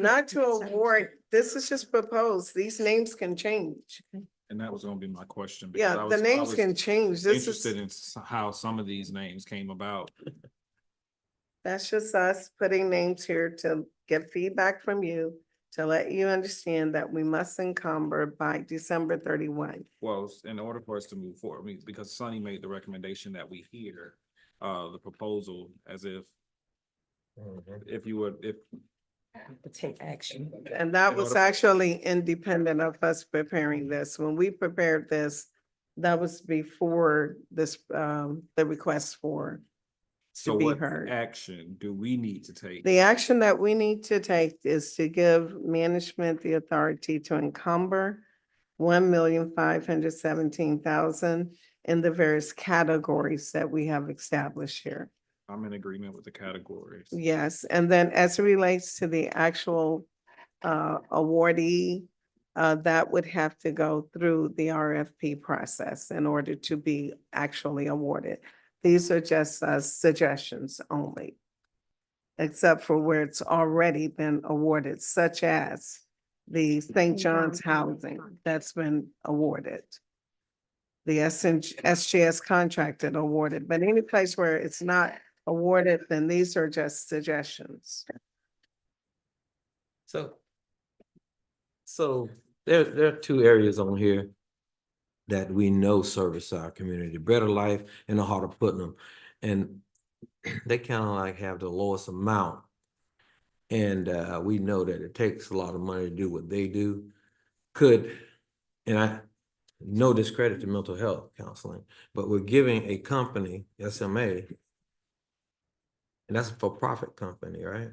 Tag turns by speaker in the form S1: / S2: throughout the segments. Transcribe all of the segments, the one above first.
S1: not to award, this is just proposed, these names can change.
S2: And that was gonna be my question. because I
S1: Yeah, the
S2: was- I
S1: names
S2: was
S1: can change, this
S2: Interested
S1: is,
S2: in s- how some of these names came about.
S1: that's just us putting names here to get feedback from you. To let you understand that we must encumber by December thirty-one.
S2: Well, s- in order for us to move forward, I mean, because Sonny made the recommendation that we hear uh the proposal as if
S3: Mm-hmm.
S2: if you would, if
S4: To take action.
S1: And that
S2: In
S1: was
S2: order-
S1: actually independent of us preparing this. When we prepared this, that was before this, um, the request for
S2: so
S1: to be
S2: what
S1: heard.
S2: action do we need to take?
S1: The action that we need to take is to give management the authority to encumber one million five hundred seventeen thousand in the various categories that we have established here.
S2: I'm in agreement with the categories.
S1: Yes, and then as it relates to the actual uh awardee, uh that would have to go through the RFP process in order to be actually awarded. These are just uh suggestions only. Except for where it's already been awarded, such as the St. John's Housing that's been awarded. The SNG SGS contracted awarded, but any place where it's not awarded, then these are just suggestions.
S3: So. So there, there are two areas on here that we know service our community, Better Life and the Heart of Putnam. And they kind of like have the lowest amount. And uh, we know that it takes a lot of money to do what they do. Could, and I, no discredit to mental health counseling, but we're giving a company, SMA, and that's a for-profit company, right?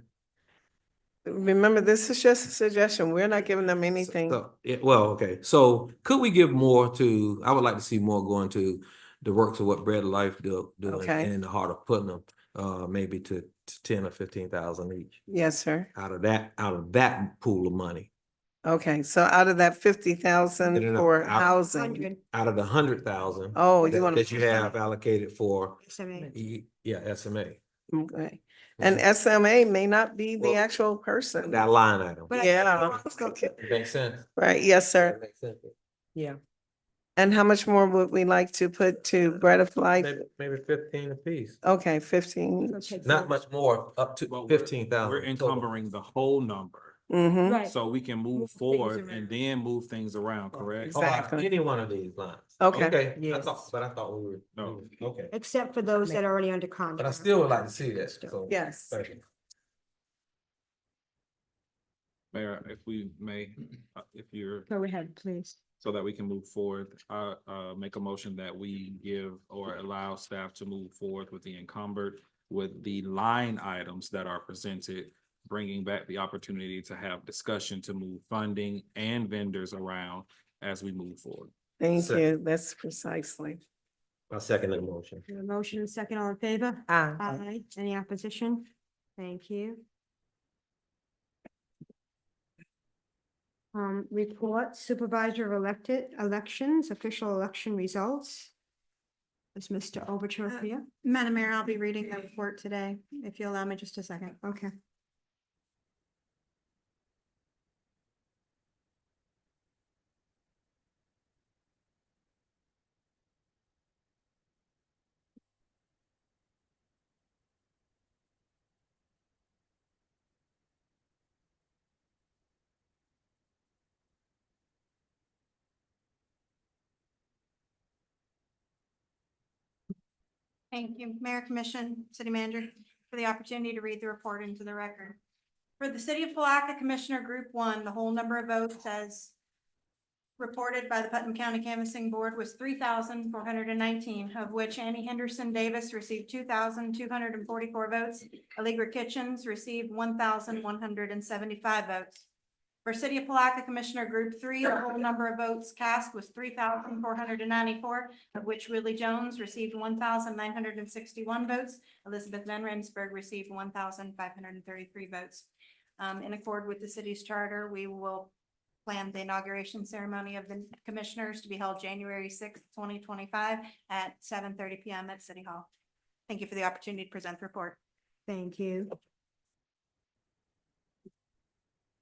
S1: Remember, this is just a suggestion. We're not giving them
S3: So-
S1: anything.
S3: so- Yeah, well, okay, so could we give more to, I would like to see more going to the works of what Bread of Life do, doing
S1: Okay.
S3: in the heart of Putnam, uh, maybe to to ten or fifteen thousand each,
S1: Yes, sir.
S3: out of that, out of that pool of money,
S1: Okay, so out of that fifty
S3: No, no,
S1: thousand
S3: no,
S1: for
S3: out-
S1: housing,
S3: out of the hundred thousand
S1: oh, you
S3: that
S1: want.
S3: that you have allocated for,
S4: Seven.
S3: e- yeah, SMA,
S1: Okay, and um, SMA may not be the
S3: Well,
S1: actual person.
S3: that line item.
S4: But I-
S1: Yeah.
S3: Makes sense.
S1: Right, yes, sir.
S3: Makes sense.
S4: Yeah.
S1: And how much more would we like to put to Bread of Life?
S3: Maybe, maybe fifteen apiece,
S1: Okay, fifteen.
S3: not much more, up to
S2: Well, we're-
S3: fifteen thousand.
S2: We're encumbering the whole number,
S1: Mm-hmm,
S4: Right.
S2: so we can
S4: Move
S2: move
S4: things
S2: forward
S4: around.
S2: and then move things around, correct?
S3: Oh, out of
S1: Exactly.
S3: Any one of these lines.
S1: Okay.
S3: I
S4: Yes.
S3: thought, but I thought we were.
S2: No.
S3: we were- Okay.
S5: Except for those that are already under contract.
S3: But I still would like to see that, so.
S1: yes.
S3: Thank you.
S2: Mayor, if we may, uh, if you're
S5: Go ahead, please.
S2: so that we can move forward. I uh make a motion that we give or allow staff to move forward with the encumbered with the line items that are presented, bringing back the opportunity to have discussion to move funding and vendors around as we move forward.
S1: Thank
S3: Sir.
S1: you. That's precisely.
S3: I second that motion.
S5: We have a motion and second, all in favor?
S4: Ah,
S5: Aye. Any opposition? Thank you. Um, report supervisor of elected elections, official election results. Is Mr. Overture
S6: Uh,
S5: here?
S6: Madam Mayor, I'll be reading the report today, if you allow me just a second.
S5: Okay.
S6: Thank you, Mayor Commission, City Manager, for the opportunity to read the report into the record. For the City of Palaca Commissioner Group One, the whole number of votes as reported by the Putnam County Canvassing Board was three thousand four hundred and nineteen, of which Annie Henderson Davis received two thousand two hundred and forty-four votes. Allegra Kitchens received one thousand one hundred and seventy-five votes. For City of Palaca Commissioner Group Three, the whole number of votes cast was three thousand four hundred and ninety-four, of which Willie Jones received one thousand nine hundred and sixty-one votes. Elizabeth Van Rensburg received one thousand five hundred and thirty-three votes. Um, in accord with the city's charter, we will plan the inauguration ceremony of the commissioners to be held January sixth, twenty twenty-five at seven thirty PM at City Hall. Thank you for the opportunity to present the report.
S5: Thank you.